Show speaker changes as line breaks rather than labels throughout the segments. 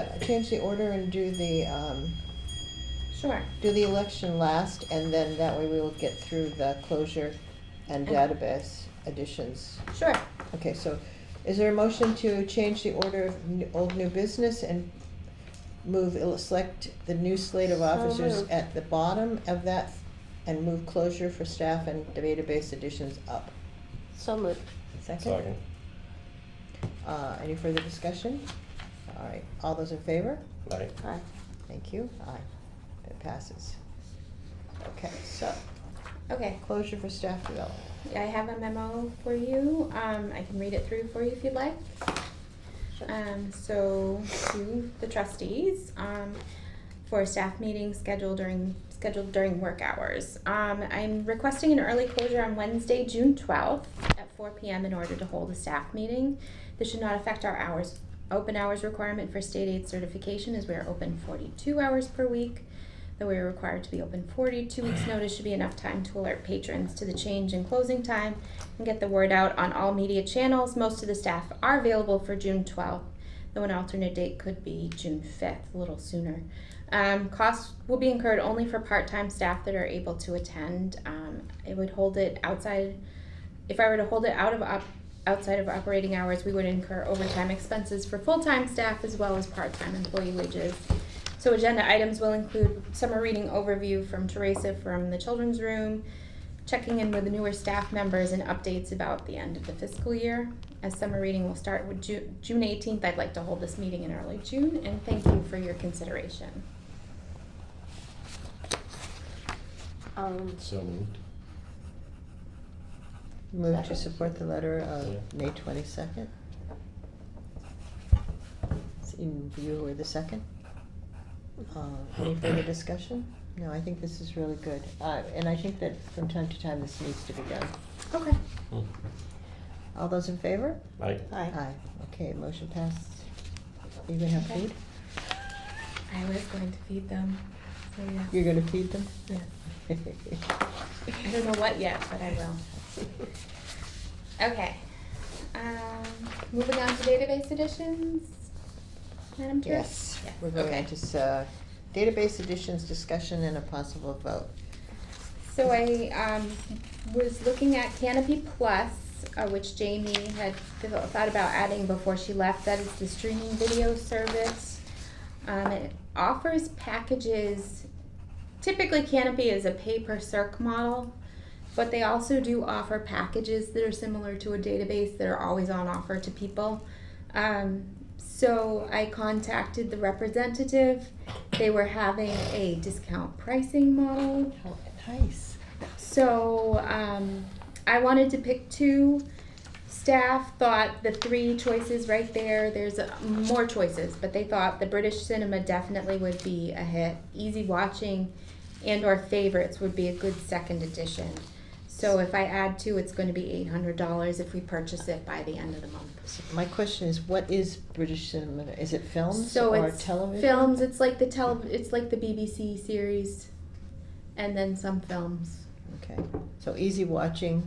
to change the order and do the, um,
Sure.
do the election last, and then that way we will get through the closure and
Okay.
database additions.
Sure.
Okay, so is there a motion to change the order of n- old new business and move, el- select the new slate of
So
officers
moved.
at the bottom of that and move closure for staff and database additions up?
So moved.
Second? Uh, any further discussion? All right, all those in favor?
Aye.
Aye.
Thank you. Aye. That passes. Okay, so
Okay,
closure for staff development.
I have a memo for you. Um, I can read it through for you if you'd like. Um, so to the trustees, um, for a staff meeting scheduled during, scheduled during work hours. Um, I'm requesting an early closure on Wednesday, June twelfth at four P M in order to hold a staff meeting. This should not affect our hours, open hours requirement for state aid certification as we are open forty-two hours per week. Though we are required to be open forty, two weeks' notice should be enough time to alert patrons to the change in closing time and get the word out on all media channels. Most of the staff are available for June 12th, though an alternate date could be June 5th, a little sooner. Um, costs will be incurred only for part time staff that are able to attend. Um, I would hold it outside, if I were to hold it out of op- outside of operating hours, we would incur overtime expenses for full time staff as well as part time employee wages. So, agenda items will include summer reading overview from Teresa from the children's room, checking in with the newer staff members and updates about the end of the fiscal year. As summer reading will start with Ju- June eighteenth, I'd like to hold this meeting in early June, and thank you for your consideration.
Um,
So moved.
Move to support the letter
Yeah.
of May twenty-second. You were the second. Uh, Any further discussion? No, I think this is really good, Uh, and I think that from time to time this needs to be done.
Okay.
Hmm.
All those in favor?
Aye.
aye.
Aye. Okay, motion passed. You gonna have
Okay.
food?
I was going to feed them, so yeah.
You're gonna feed them?
Yeah. I don't know what yet, but I will. Okay. Um, moving on to database additions. Madam Chair?
Yes,
Yes,
we're going
okay.
to, s- uh, database additions, discussion, and a possible vote.
So I um, was looking at Canopy Plus, uh, which Jamie had devel- thought about adding before she left. That is the streaming video service. Um, it offers packages. Typically, Canopy is a pay per circ model, but they also do offer packages that are similar to a database that are always on offer to people. Um, so I contacted the representative. They were having a discount pricing model.
How nice.
So um, I wanted to pick two. Staff thought the three choices right there. There's uh, more choices, but they thought the British cinema definitely would be a hit. Easy watching, and or favorites would be a good second edition. So if I add two, it's going to be eight hundred dollars if we purchase it by the end of the month.
So My question is, what is British cinema? Is it films
So
or
it's
television?
Films. It's like the tele. It's like the BBC series, and then some films.
Okay, so easy watching.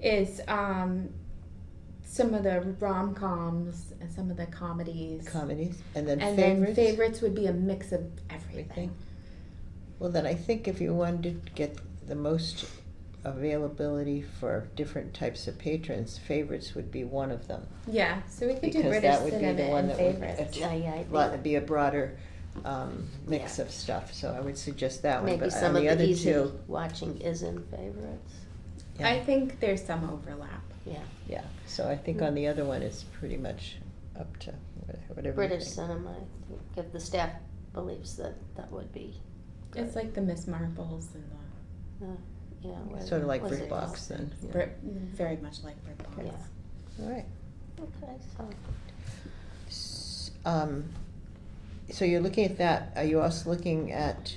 is um, some of the rom coms and some of the comedies.
comedies, and then
and
favorites.
then favorites would be a mix of everything.
Everything. Well, then I think if you wanted to get the most availability for different types of patrons, favorites would be one of them.
Yeah, so we could do
Because
British
that would be
cinema
the one
and
that would
favorites.
att-
Yeah, yeah, I
Well,
think
it'd be a broader um, mix
Yeah.
of stuff. So I would suggest that one.
maybe
But on
some of
the
the
other
easy
two,
watching is in favorites,
yeah,
I think there's some overlap.
yeah.
yeah. So I think on the other one, it's pretty much up to wha- whatever. you
British
think.
cinema, I think, if the staff believes that that would be,
It's like the Miss Marbles and the
you know. what-
Sort of like
what's it
Brick Box
called?
then. yeah.
Brit, very much like Brit Bonds.
Yeah.
All right.
Okay, so,
S- Um, so you're looking at that, are you also looking at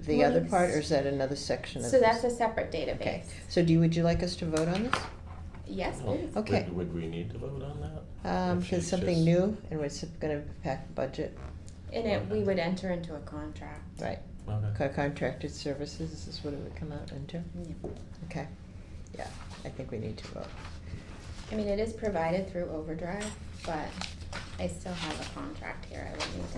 the
Well,
other part, or
yes.
is that another section of
So
this?
that's a separate database.
Okay, so do you, would you like us to vote on this?
Yes,
Well,
please.
Okay.
Would, would we need to vote on that?
Um,
Actually,
cause something
just-
new, and it's gonna impact budget,
In it, we would enter into a contract.
right,
Okay.
Co- contracted services, this is what it would come out into,
Yeah.
okay, yeah, I think we need to vote.
I mean, it is provided through Overdrive, but I still have a contract here. I would need to